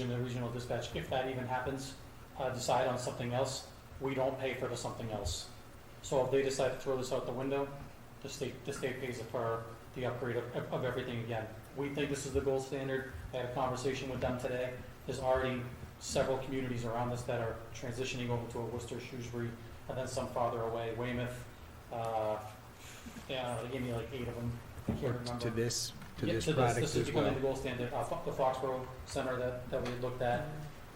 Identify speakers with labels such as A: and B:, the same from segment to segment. A: and the regional dispatch, if that even happens, uh, decide on something else, we don't pay for the something else. So if they decide to throw this out the window, the state, the state pays for the upgrade of, of everything again. We think this is the gold standard. I had a conversation with them today. There's already several communities around us that are transitioning over to a Worcester, Shrewsbury, and then some farther away, Weymouth, uh, yeah, they gave me like eight of them. I can't remember.
B: to this, to
A: Yeah,
B: this
A: so
B: product
A: This is
B: as
A: becoming
B: well.
A: the gold standard, uh, Fo- the Foxborough Center that, that we looked at,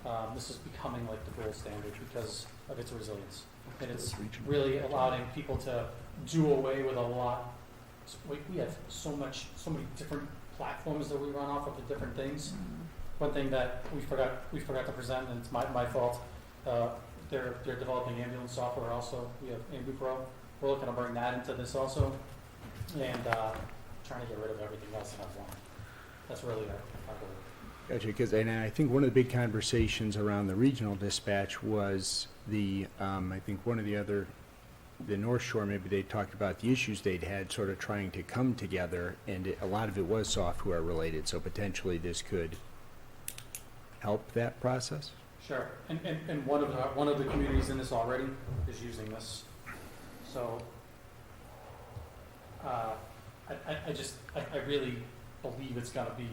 A: um, this is becoming like the gold standard because of its resilience. And it's really allowing people to do away with a lot, s- we, we have so much, so many different platforms that we run off of the different things. One thing that we forgot, we forgot to present, and it's my, my fault, uh, they're, they're developing ambulance software also, we have AmbuPro, we're looking to bring that into this also. And, uh, trying to get rid of everything else in our one. That's really our, our goal.
B: Gotcha, because, and I think one of the big conversations around the regional dispatch was the, um, I think one of the other, the North Shore, maybe they talked about the issues they'd had sort of trying to come together, and it- a lot of it was software related, so potentially this could help that process?
A: Sure, and, and, and one of, the- one of the communities in this already is using this, so, uh, I, I, I just, I, I really believe it's gonna be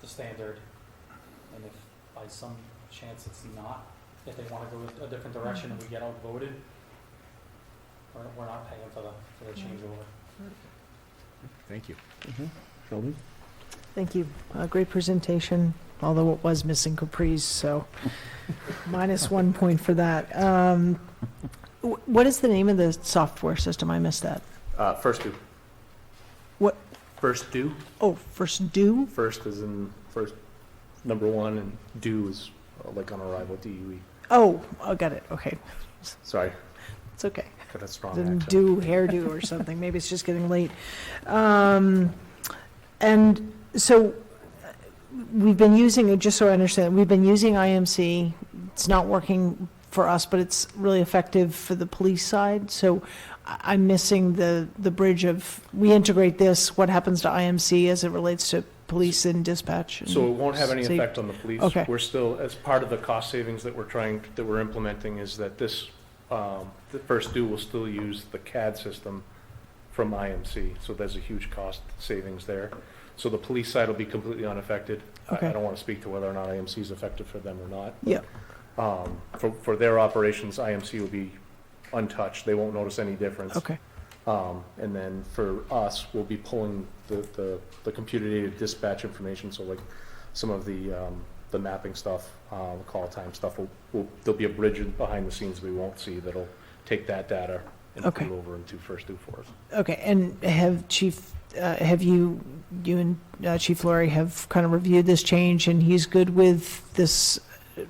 A: the standard, and if by some chance it's not, if they wanna go a different direction and we get outvoted, we're, we're not paying for the, for the changeover.
B: Thank you.
C: Sheldon?
D: Thank you. Uh, Great presentation, although it was missing Capri's, so minus one point for that. Um, wh- What is the name of the software system? I missed that.
C: Uh, first do.
D: What?
C: First do.
D: Oh, First Do?
C: First is in first number one, and do is uh, like on arrival. D U E.
D: Oh, I got it. Okay,
C: Sorry,
D: it's okay.
C: got a strong
D: Didn't
C: accent.
D: do hairdo or something. Maybe it's just getting late. Um, And so uh, we've been using, just so I understand, we've been using IMC. It's not working for us, but it's really effective for the police side. So I- I'm missing the, the bridge of, we integrate this, what happens to IMC as it relates to police and dispatch? and-
C: So it won't have any
D: Safe.
C: effect on the police.
D: Okay.
C: We're still, as part of the cost savings that we're trying, that we're implementing, is that this, um, the first do will still use the CAD system from IMC, so there's a huge cost savings there. So the police side will be completely unaffected. I- I
D: Okay.
C: don't want to speak to whether or not IMC is effective for them or not.
D: Yeah,
C: Um, For, for their operations, IMC will be untouched, they won't notice any difference.
D: okay,
C: Um, And then for us, we'll be pulling the, the, the computer aided dispatch information, so like some of the, um, the mapping stuff, uh, the call time stuff, will, will, there'll be a bridge in- behind the scenes we won't see that'll take that data and put
D: Okay.
C: it over into first do for us.
D: okay. And have Chief, uh, have you, you and uh, Chief Laurie have kind of reviewed this change and he's good with this? uh,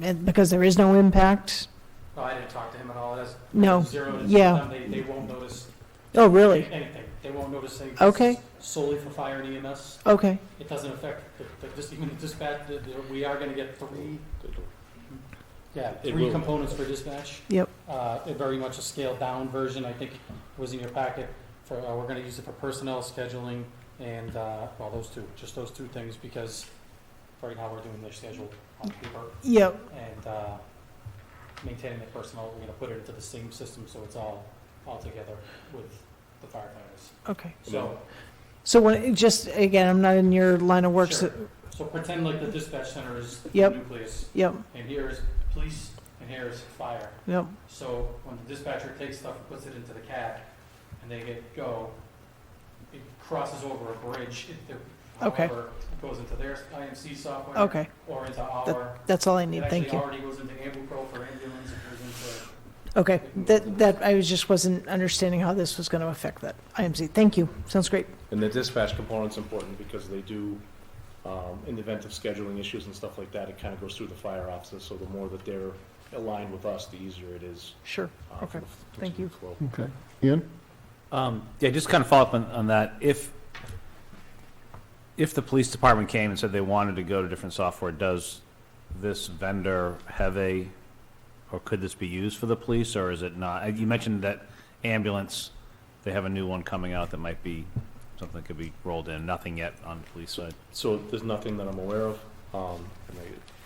D: and Because there is no impact?
A: No, I didn't talk to him at all, that's.
D: No,
A: Zero to
D: yeah.
A: them, they, they won't notice
D: Oh, really?
A: Anything. They won't notice anything.
D: Okay.
A: Solely for fire and E EMS.
D: Okay,
A: It doesn't affect, the- the- just even the dispatch, the- the- we are gonna get three, yeah,
C: It
A: three
C: will.
A: components for dispatch.
D: yep,
A: Uh, it very much a scaled down version, I think was in your packet. For, uh, we're gonna use it for personnel scheduling and, uh, well, those two, just those two things because right now we're doing their schedule on paper
D: yep,
A: and, uh, maintaining the personnel, we're gonna put it into the same system so it's all, all together with the firefighters.
D: okay.
A: So,
D: So when, just, again, I'm not in your line of work,
A: Sure.
D: so,
A: So pretend like the dispatch center is the
D: Yep.
A: nucleus,
D: yep,
A: and here is police, and here is fire.
D: yep,
A: So when the dispatcher takes stuff and puts it into the cab, and they get go, it crosses over a bridge, it, there-
D: Okay.
A: however, it goes into their IMC software.
D: okay.
A: Or into our,
D: That's all I
A: it
D: need,
A: actually
D: thank you.
A: already goes into AmbuPro for ambulance, it
D: Okay, that, that, I was, just wasn't understanding how this was gonna affect that. IMC, thank you, sounds great.
C: And the dispatch component's important because they do, um, in the event of scheduling issues and stuff like that, it kind of goes through the fire offices, so the more that they're aligned with us, the easier it is.
D: Sure,
C: uh, for
D: Okay.
C: the f-
D: Thank you.
C: continued flow.
E: Okay. Ian?
F: Um, Yeah, just kind of follow up on, on that. If, if the police department came and said they wanted to go to different software, does this vendor have a, or could this be used for the police, or is it not? Uh, You mentioned that ambulance, they have a new one coming out that might be, something that could be rolled in, nothing yet on the police side.
C: So there's nothing that I'm aware of. Um, and I-